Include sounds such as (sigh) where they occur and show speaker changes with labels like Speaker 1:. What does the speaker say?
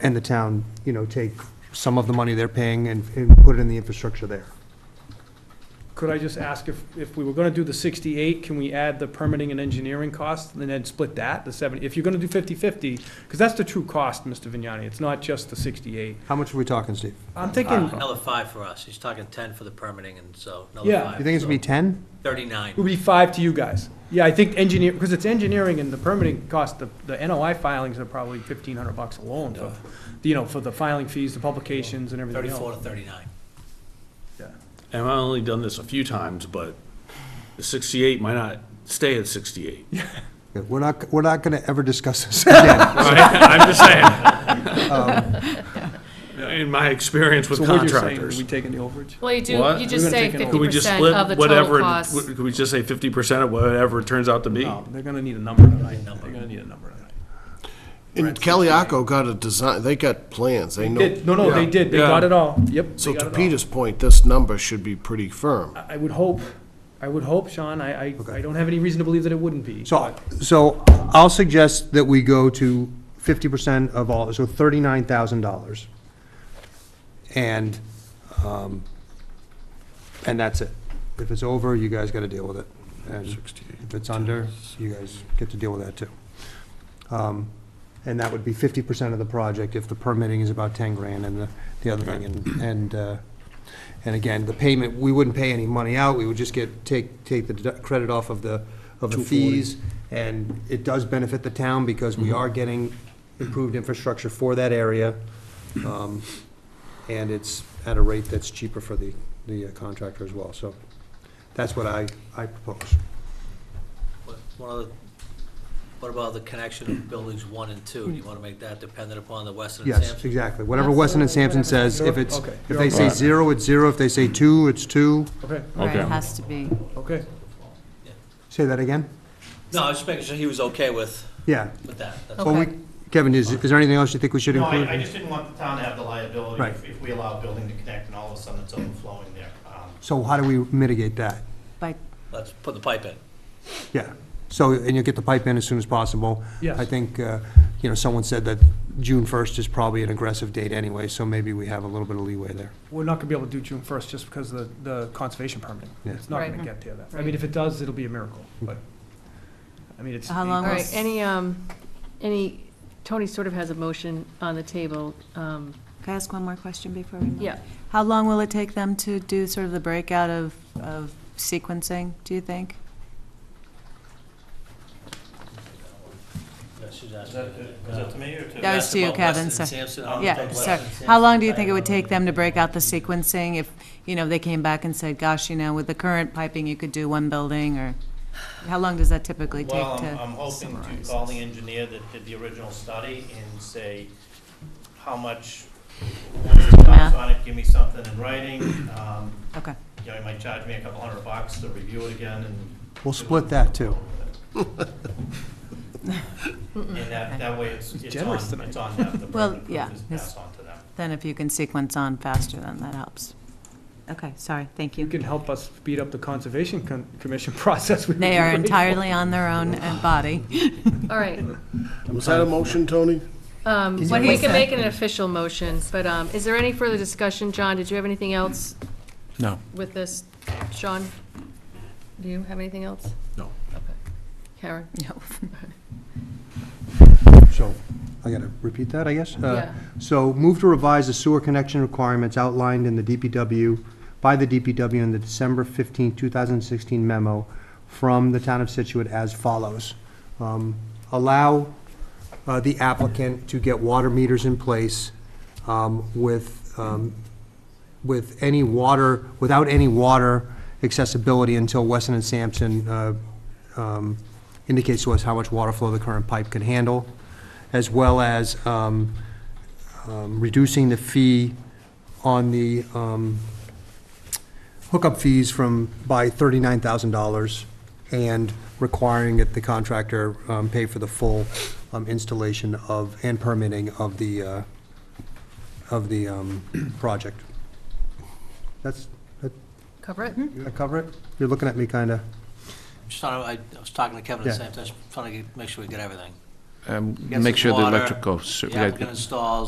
Speaker 1: and the town, you know, take some of the money they're paying and, and put it in the infrastructure there.
Speaker 2: Could I just ask if, if we were gonna do the sixty-eight, can we add the permitting and engineering cost and then split that, the seventy? If you're gonna do fifty-fifty, because that's the true cost, Mr. Vignani, it's not just the sixty-eight.
Speaker 1: How much are we talking, Steve?
Speaker 2: I'm
Speaker 3: Uh,
Speaker 2: thinking,
Speaker 3: Another five for us. He's talking 10 for the permitting, and so another
Speaker 2: Yeah.
Speaker 3: five.
Speaker 1: You think it's gonna be ten?
Speaker 3: so
Speaker 2: it would
Speaker 3: 39.
Speaker 2: be five to you guys. Yeah, I think engineer, because it's engineering and the permitting cost, the, the NOI filings are probably fifteen hundred bucks alone for, you know, for the filing fees, the publications and everything
Speaker 3: 34
Speaker 2: else.
Speaker 3: to 39.
Speaker 2: Yeah.
Speaker 4: And I've only done this a few times, but the sixty-eight might not stay
Speaker 2: (laughs)
Speaker 4: at sixty-eight.
Speaker 1: We're not, we're not gonna ever discuss this again.
Speaker 4: I'm just saying.
Speaker 5: Um,
Speaker 4: In my experience with
Speaker 2: So what you're saying, are
Speaker 4: contractors.
Speaker 2: we taking the overage?
Speaker 5: Well, you do,
Speaker 4: What?
Speaker 5: you
Speaker 2: We're
Speaker 5: just
Speaker 2: gonna
Speaker 5: say
Speaker 2: take an over.
Speaker 5: fifty
Speaker 4: Could we just
Speaker 5: percent
Speaker 4: split
Speaker 5: of the total
Speaker 4: whatever?
Speaker 5: cost.
Speaker 4: Could we just say fifty percent of whatever it turns out to be?
Speaker 2: No, they're gonna need a number tonight, they're gonna need a number tonight.
Speaker 6: And Caliaco got a design, they got plans, they know.
Speaker 2: Did, no, no, they did, they got
Speaker 4: Yeah.
Speaker 2: it all, yep. they
Speaker 6: So
Speaker 2: got
Speaker 6: to
Speaker 2: it all.
Speaker 6: Peter's point, this number should be pretty firm.
Speaker 2: I would hope, I would hope, Sean, I, I, I don't have any reason to believe that it wouldn't be.
Speaker 1: So, so I'll suggest that we go to fifty percent of all, so thirty-nine thousand dollars. And, um, and that's it. If it's over, you guys gotta deal with it. And if it's under, you guys get to deal with that too. Um, And that would be fifty percent of the project if the permitting is about ten grand and the, the other thing. And, and, uh, and again, the payment, we wouldn't pay any money out, we would just get, take, take the dedu- credit off of the, of the fees. And it does benefit the town because we are getting improved infrastructure for that area. Um, And it's at a rate that's cheaper for the, the uh, contractor as well, so that's what I, I propose.
Speaker 3: What- One other, what about the connection of buildings one and two? Do you want to make that dependent upon the Weston and
Speaker 1: Yes,
Speaker 3: Sampson?
Speaker 1: exactly. Whatever Weston and Sampson
Speaker 5: Absolutely,
Speaker 1: says, if it's,
Speaker 2: Sure, okay.
Speaker 1: if they say zero, it's zero. If they say two, it's two.
Speaker 2: Okay,
Speaker 5: Right,
Speaker 4: Okay.
Speaker 5: it has to be.
Speaker 2: okay.
Speaker 1: Say that again?
Speaker 3: No, I was just making sure he was okay with,
Speaker 1: Yeah.
Speaker 3: with that. That's
Speaker 1: Well, we,
Speaker 5: Okay.
Speaker 1: Kevin, is, is there anything else you think we should
Speaker 7: No,
Speaker 1: include?
Speaker 7: I, I just didn't want the town to have the liability
Speaker 1: Right.
Speaker 7: if, if we allow a building to connect and all of a sudden it's overflowing there. Um,
Speaker 1: So how do we mitigate that?
Speaker 5: By,
Speaker 3: Let's put the pipe in.
Speaker 1: Yeah. So, and you'll get the pipe in as soon as possible.
Speaker 2: Yes.
Speaker 1: I think, uh, you know, someone said that June first is probably an aggressive date anyway, so maybe we have a little bit of leeway there.
Speaker 2: We're not gonna be able to do June first just because of the, the conservation permit.
Speaker 1: Yeah. Hmm.
Speaker 2: It's not gonna
Speaker 5: Right.
Speaker 2: get there. I mean, if it does, it'll be a miracle, but, I mean, it's.
Speaker 5: How long
Speaker 8: All right,
Speaker 5: was-
Speaker 8: any, um, any, Tony sort of has a motion on the table. Um,
Speaker 5: can I ask one more question before we move?
Speaker 8: Yeah,
Speaker 5: How long will it take them to do sort of the breakout of, of sequencing, do you think?
Speaker 3: Yeah, she's
Speaker 7: Is
Speaker 3: asking.
Speaker 7: that, is that to me or to?
Speaker 5: That was to you,
Speaker 3: That's about
Speaker 5: Kevin,
Speaker 3: Weston and
Speaker 5: so-
Speaker 3: Sampson. I don't
Speaker 5: Yeah,
Speaker 3: think
Speaker 5: so,
Speaker 3: Weston and
Speaker 5: how long
Speaker 3: Sampson-
Speaker 5: do you think it would take them to break out the sequencing if, you know, they came back and said, gosh, you know, with the current piping, you could do one building, or how long does that typically take to
Speaker 7: Well, um,
Speaker 5: summarize?
Speaker 7: I'm, I'm hoping to call the
Speaker 5: this?
Speaker 7: engineer that did the original study and say, how much, what's the cost
Speaker 5: Math.
Speaker 7: on it, give me something in writing. Um,
Speaker 5: Okay,
Speaker 7: You know, he might charge me a couple hundred bucks to review it again and.
Speaker 1: We'll split that, too.
Speaker 7: And that, that way it's, it's on,
Speaker 2: generous tonight.
Speaker 7: it's on them, the
Speaker 5: Well,
Speaker 7: burden of
Speaker 5: yeah,
Speaker 7: proof is
Speaker 5: it's-
Speaker 7: passed on to them.
Speaker 5: then if you can sequence on faster, then that helps. Okay, sorry, thank
Speaker 2: You can help us speed up the conservation con- commission (laughs) process. We would
Speaker 5: They
Speaker 2: be
Speaker 5: are
Speaker 2: grateful.
Speaker 5: entirely on their own uh, body.
Speaker 8: all
Speaker 5: (laughs)
Speaker 8: right.
Speaker 6: Was that a motion, Tony?
Speaker 8: Um,
Speaker 1: Is
Speaker 8: When
Speaker 1: it-
Speaker 8: we can make it an official motion, but um, is there any further discussion? John, did you have anything else?
Speaker 4: No.
Speaker 8: With this? Sean? Do you have anything else?
Speaker 4: No.
Speaker 8: Karen?
Speaker 1: So, I gotta repeat that, I guess? Uh,
Speaker 8: Yeah.
Speaker 1: So, move to revise the sewer connection requirements outlined in the DPW, by the DPW in the December 15, 2016 memo from the town of Situate as follows. Um, Allow uh, the applicant to get water meters in place um, with, um, with any water, without any water accessibility until Weston and Sampson uh, um, indicates to us how much water flow the current pipe can handle, as well as um, um, reducing the fee on the um, hookup fees from, by $39,000, and requiring that the contractor um, pay for the full um, installation of, and permitting of the, uh, of the um, (clears throat) project. That's, that
Speaker 8: Cover
Speaker 5: Mm-hmm.
Speaker 8: it?
Speaker 1: that cover it? You're looking at me kind of,
Speaker 3: Just trying to- I was talking to Kevin at
Speaker 1: Yeah.
Speaker 3: the same time, just trying to get- make sure we get everything.
Speaker 9: Um,
Speaker 3: Yes,
Speaker 9: Make
Speaker 3: it's
Speaker 9: sure the
Speaker 3: water.
Speaker 9: electrical, ser-
Speaker 3: The applicant installs